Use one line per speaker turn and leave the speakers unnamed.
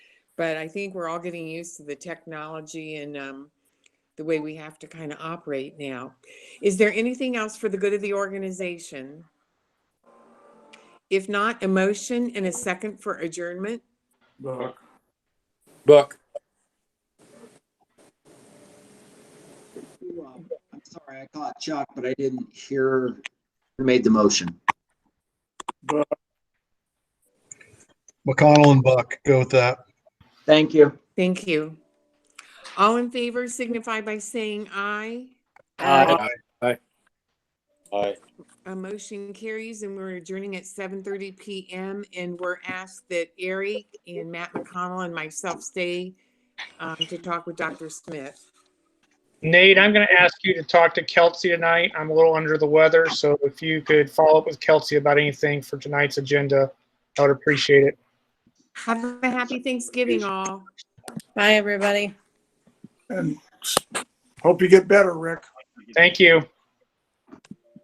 But I think we're all getting used to the technology and um, the way we have to kind of operate now. Is there anything else for the good of the organization? If not, a motion and a second for adjournment?
Buck,
Buck,
Who, um, I'm sorry, I caught Chuck, but I didn't hear who made the motion.
Buck,
McConnell and Buck, go with that.
Thank you.
Thank you. All in favor signify by saying aye.
Aye.
Aye.
A motion carries and we're adjourning at seven thirty PM and we're asked that Eric and Matt McConnell and myself stay um, to talk with Dr. Smith.
Nate, I'm going to ask you to talk to Kelsey tonight. I'm a little under the weather, so if you could follow up with Kelsey about anything for tonight's agenda, I would appreciate it.
Have a happy Thanksgiving all.
Bye, everybody.
and s- hope you get better, Rick.
Thank you.